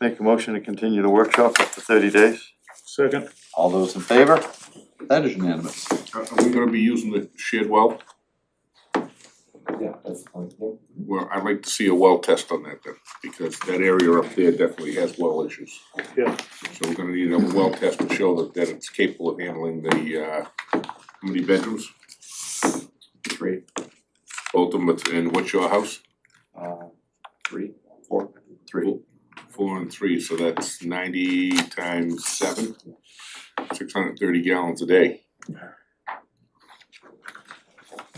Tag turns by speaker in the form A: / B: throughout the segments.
A: Make a motion to continue the workshop up to thirty days?
B: Second.
C: All those in favor? That is unanimous.
D: Are are we gonna be using the shared well?
E: Yeah, that's the point, yeah.
D: Well, I'd like to see a well test on that then, because that area up there definitely has well issues.
B: Yeah.
D: So we're gonna need a well test to show that that it's capable of handling the uh, how many bedrooms,
E: Three,
D: both of them, it's- and what's your house?
E: uh, three, four, three.
D: Four and three, so that's ninety times seven, six hundred and thirty gallons a day.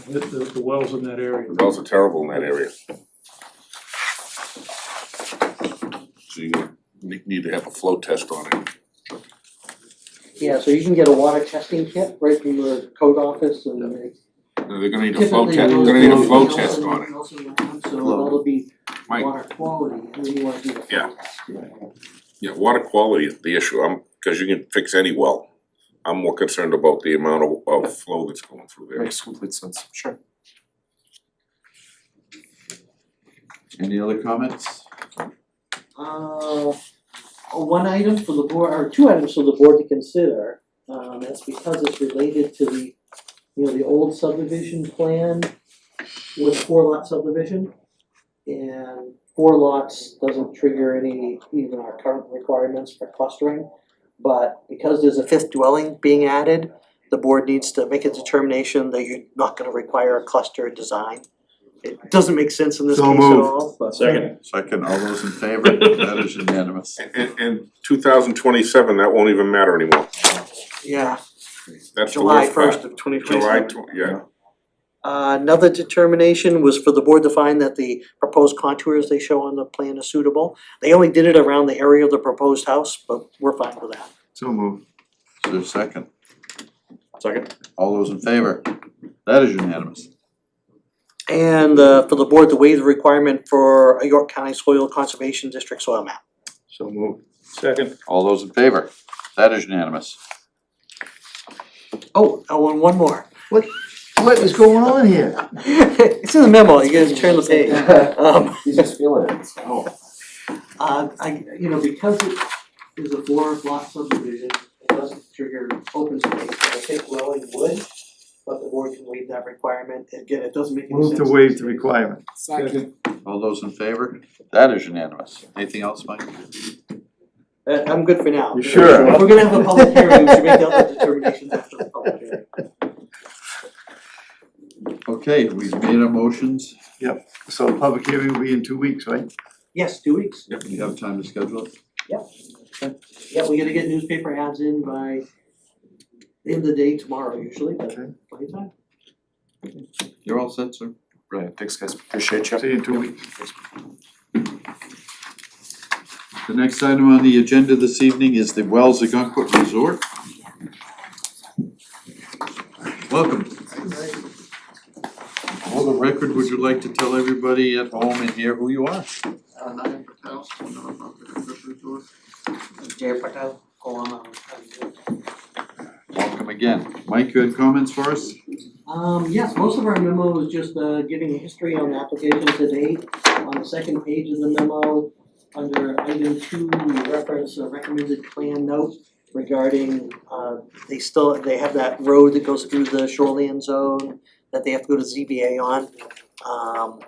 B: The, the, the wells in that area.
D: The wells are terrible in that area. So you're gonna ne- need to have a flow test on it.
F: Yeah, so you can get a water testing kit right from the code office and it's
D: No, They're gonna need a flow
F: typically.
D: test, they're gonna need a flow
F: Nelson-
D: test on it,
F: Nelson Labs, so that'll be
D: Mike.
F: water quality, and then you wanna do the.
D: Yeah. Yeah, water quality is the issue, I'm, cause you can fix any well. I'm more concerned about the amount of of flow that's going through there.
E: Makes complete sense, sure.
C: Any other comments?
F: Uh, one item for the board, or two items for the board to consider, um, that's because it's related to the, you know, the old subdivision plan with four lot subdivision. And four lots doesn't trigger any, even our current requirements for clustering. But because there's a fifth dwelling being added, the board needs to make a determination that you're not gonna require a cluster design. It doesn't make sense in this
A: So
F: case at
A: moved.
F: all, but.
B: Second.
C: Second, all those in favor? That is unanimous.
D: And and and two thousand twenty seven, that won't even matter anymore,
F: Yeah,
D: that's the
F: July
D: worst part.
F: first of twenty twenty
D: July
F: seven.
D: tw- yeah,
F: Uh, another determination was for the board to find that the proposed contours they show on the plan is suitable. They only did it around the area of the proposed house, but we're fine with that.
A: So moved.
C: Is there a second?
E: Second.
C: All those in favor? That is unanimous.
F: And, uh, for the board to waive the requirement for a York County Soil Conservation District soil map.
A: So moved.
B: Second.
C: All those in favor? That is unanimous.
F: Oh, oh, and one more.
A: What is going on here?
F: It's in the memo, you guys turn the page. Um,
E: He's just feeling it, oh.
F: Uh, I, you know, because it is a four lot subdivision, it doesn't trigger open space, I think Welling would, but the board can waive that requirement, again, it doesn't make any sense.
A: Move to waive the requirement.
B: Second.
C: All those in favor? That is unanimous. Anything else, Mike?
F: Uh, I'm good for now.
A: You sure?
F: If we're gonna have a public hearing, we should make the other determinations after the public hearing.
C: Okay, we've made our motions.
A: So the public hearing will be in two weeks, right?
F: Yes, two weeks,
C: Do you have time to schedule it?
F: yeah, we gotta get newspaper ads in by the end of the day tomorrow usually, but
A: Okay.
F: plenty of time.
C: You're all set, sir?
E: Brilliant, thanks guys, appreciate you.
A: See you in two weeks.
C: The next item on the agenda this evening is the Wells Agunquit Resort. Welcome. For the record, would you like to tell everybody at home and here who you are?
G: Uh, Nayan Patel, nonprofit Equipment Resort.
F: Jay Patel, go on, um, um,
C: Welcome again. Mike, you had comments for us?
F: Um, yes, most of our memo is just, uh, giving a history on the application to date. On the second page of the memo, under item two, we reference a recommended plan note regarding, uh, they still, they have that road that goes through the shoreline zone that they have to go to ZBA on. Um,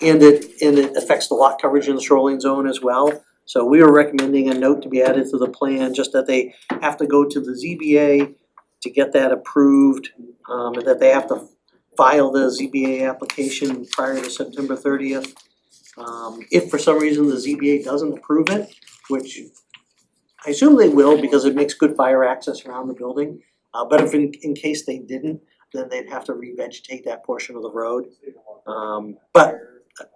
F: and it, and it affects the lot coverage in the shoreline zone as well. So we are recommending a note to be added to the plan, just that they have to go to the ZBA to get that approved um, and that they have to file the ZBA application prior to September thirtieth. Um, if for some reason the ZBA doesn't approve it, which I assume they will because it makes good fire access around the building. Uh, but if in, in case they didn't, then they'd have to revegetate that portion of the road. Um, but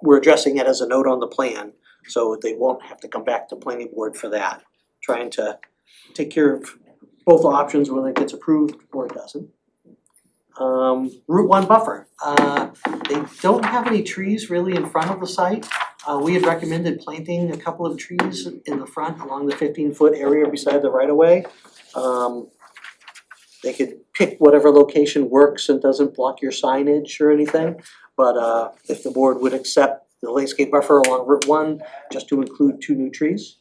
F: we're addressing it as a note on the plan, so they won't have to come back to planning board for that. Trying to take care of both options, whether it gets approved or it doesn't um Route One buffer. Uh they don't have any trees really in front of the site. Uh we had recommended planting a couple of trees in the front along the fifteen foot area beside the right of way. Um they could pick whatever location works and doesn't block your signage or anything. But uh if the board would accept the landscape buffer along Route One, just to include two new trees.